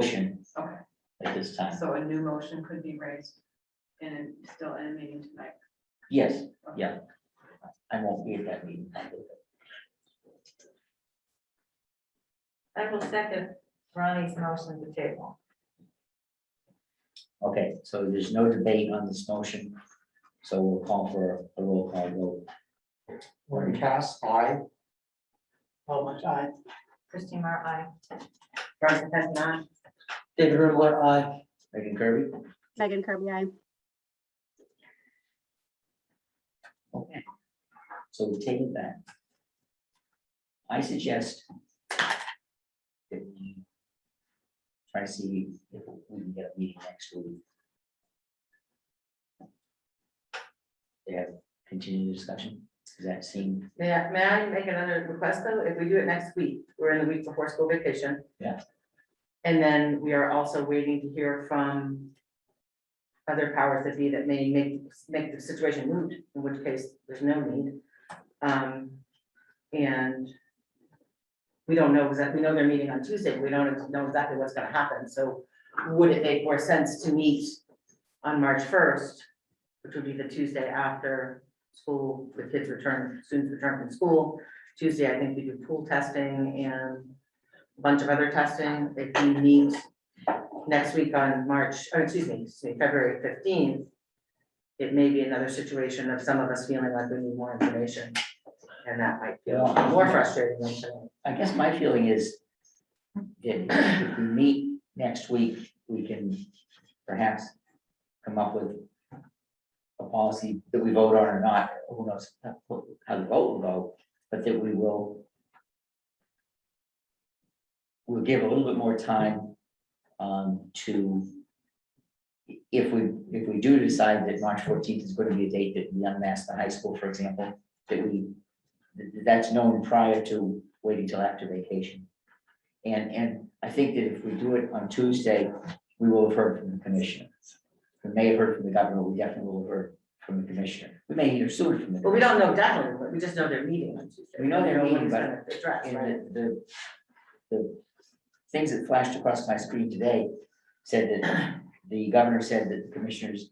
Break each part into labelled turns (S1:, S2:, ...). S1: motion
S2: Okay,
S1: at this time.
S2: so a new motion could be raised and still in a meeting tonight.
S1: Yes, yeah. I won't be at that meeting.
S3: I will second Ronnie's motion to table.
S1: Okay, so there's no debate on this motion, so we'll call for a roll call vote.
S4: Warren Cass, I.
S5: Paul I. aye.
S3: Christine Mara, aye.
S2: Veronica Pettis, aye.
S5: David Rivera, aye.
S1: Megan Kirby?
S6: Megan Kirby, I.
S1: Okay. So we take it back. I suggest that we try to see if we can get a meeting next week. They have continued discussion. Does that seem,
S7: May I, may I make another request though? If we do it next week, we're in the week before school vacation.
S1: Yeah.
S7: And then we are also waiting to hear from other powers that be that may make, make the situation moot, in which case there's no need. Um, and we don't know exactly, we know they're meeting on Tuesday, but we don't know exactly what's gonna happen, so would it make more sense to meet on March first, which would be the Tuesday after school, the kids return, students return from school. Tuesday, I think we do pool testing and a bunch of other testing. If we meet next week on March, oh, excuse me, excuse me, February fifteenth, it may be another situation of some of us feeling like we need more information. And that might feel more frustrating than tonight.
S1: I guess my feeling is that if we meet next week, we can perhaps come up with a policy that we vote on or not, who knows how the vote will go, but that we will we'll give a little bit more time um to if we, if we do decide that March fourteenth is going to be a date that we unmask the high school, for example, that we th- th- that's known prior to waiting till after vacation. And, and I think that if we do it on Tuesday, we will have heard from the commissioner. We may have heard from the governor, we definitely will have heard from the commissioner. We may hear sooner from the.
S7: But we don't know definitely, but we just know they're meeting on Tuesday.
S1: We know they're
S7: what
S1: meeting,
S7: it's
S1: but
S7: gonna address, right?
S1: And the, the, the things that flashed across my screen today said that the governor said that the commissioners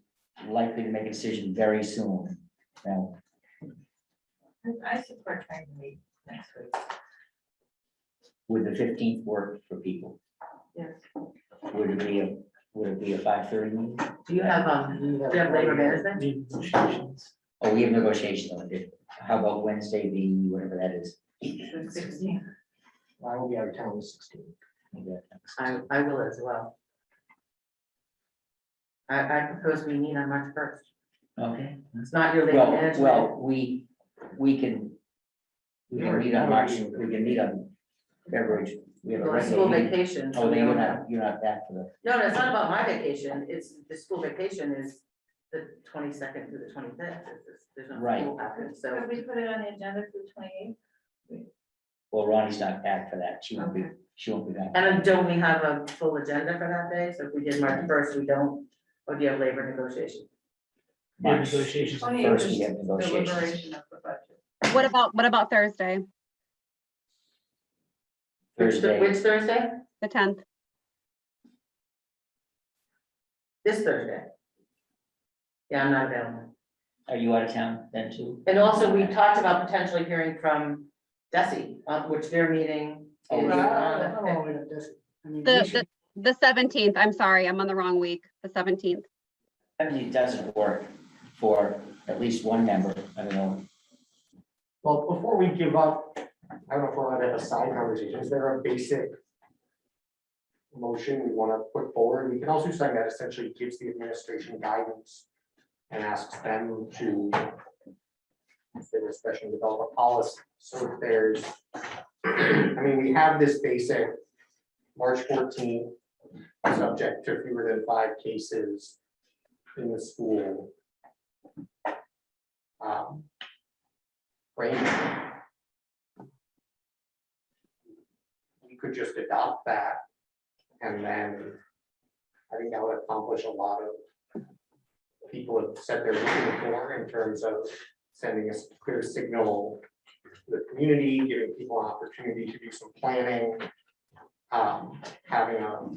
S1: likely to make a decision very soon. Now,
S3: I support trying to meet next week.
S1: would the fifteenth work for people?
S3: Yes.
S1: Would it be a, would it be a five thirty?
S7: Do you have, um, do you have labor management?
S5: Need negotiations.
S1: Oh, we have negotiations on it. How about Wednesday, the, whatever that is?
S7: The 16th.
S4: I will be out of town on the sixteenth.
S7: I, I will as well. I, I propose we meet on March first.
S1: Okay.
S7: It's not your labor
S1: Well,
S7: management.
S1: well, we, we can, we can meet on March, we can meet on February. We have a
S7: Well, it's school
S1: regular meeting.
S7: vacation.
S1: Oh,
S7: so we
S1: then you're
S7: don't
S1: not,
S7: have-
S1: you're not back for the,
S7: No, no, it's not about my vacation. It's, the school vacation is the twenty-second through the twenty-fifth. There's no
S1: Right.
S7: school happening, so.
S3: Could we put it on the agenda for the twenty-eighth?
S1: well, Ronnie's not back for that, she won't be, she won't be back.
S7: And then don't we have a full agenda for that day? So if we did March first, we don't, or do you have labor negotiation?
S5: Yeah,
S1: March first,
S5: negotiations.
S2: Oh, yeah.
S1: we have negotiations.
S2: Deliberation of the budget.
S6: What about, what about Thursday,
S7: Which Thur-
S1: Thursday,
S7: Which Thursday?
S6: the tenth?
S7: This Thursday. Yeah, I'm not available.
S1: are you out of town then too?
S7: And also, we talked about potentially hearing from Desi, uh, which their meeting
S1: Oh,
S7: is
S1: yeah.
S7: on the fifth.
S6: The, the, the seventeenth, I'm sorry, I'm on the wrong week, the seventeenth.
S1: I mean, it doesn't work for at least one member, I don't know,
S4: Well, before we give up, I don't know if we're allowed to have a side conversation. Is there a basic motion we want to put forward? We can also do something that essentially gives the administration guidance and asks them to if they were special develop a policy. So if there's, I mean, we have this basic March 14, subject to fewer than five cases in the school. Um, right? We could just adopt that and then I think that would accomplish a lot of people have said they're looking for in terms of sending a clear signal to the community, giving people an opportunity to do some planning, um, having a